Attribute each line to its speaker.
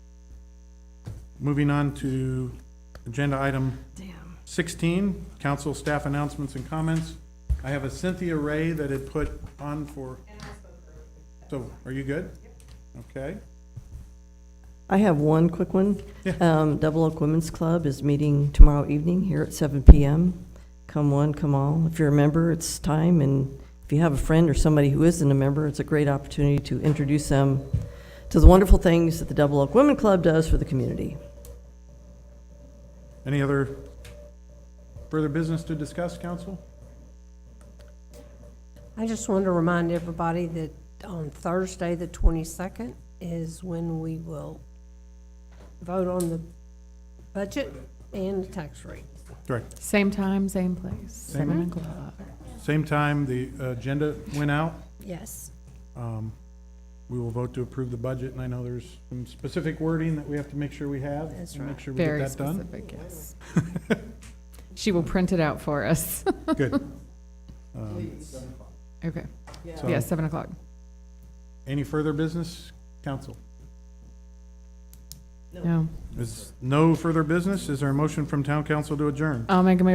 Speaker 1: Moving on to agenda item
Speaker 2: Damn.
Speaker 1: 16, council staff announcements and comments. I have a Cynthia Ray that had put on for. So, are you good? Okay.
Speaker 2: I have one quick one.
Speaker 1: Yeah.
Speaker 2: Um, Double Oak Women's Club is meeting tomorrow evening here at seven PM. Come one, come all. If you're a member, it's time, and if you have a friend or somebody who isn't a member, it's a great opportunity to introduce them to the wonderful things that the Double Oak Women Club does for the community.
Speaker 1: Any other further business to discuss, council?
Speaker 3: I just wanted to remind everybody that on Thursday, the 22nd, is when we will vote on the budget and the tax rate.
Speaker 1: Correct.
Speaker 4: Same time, same place,
Speaker 1: Same-
Speaker 4: seven o'clock.
Speaker 1: Same time, the agenda went out.
Speaker 3: Yes.
Speaker 1: Um, We will vote to approve the budget, and I know there's some specific wording that we have to make sure we have.
Speaker 3: That's
Speaker 1: and Make
Speaker 3: right.
Speaker 1: sure we get
Speaker 4: Very
Speaker 1: that done.
Speaker 4: specific, yes. She will print it out for us.
Speaker 1: Good. Um,
Speaker 4: Okay,
Speaker 1: so,
Speaker 4: yeah, seven o'clock.
Speaker 1: Any further business, council?
Speaker 4: No.
Speaker 1: Is no further business? Is there a motion from town council to adjourn?
Speaker 4: I'll make a motion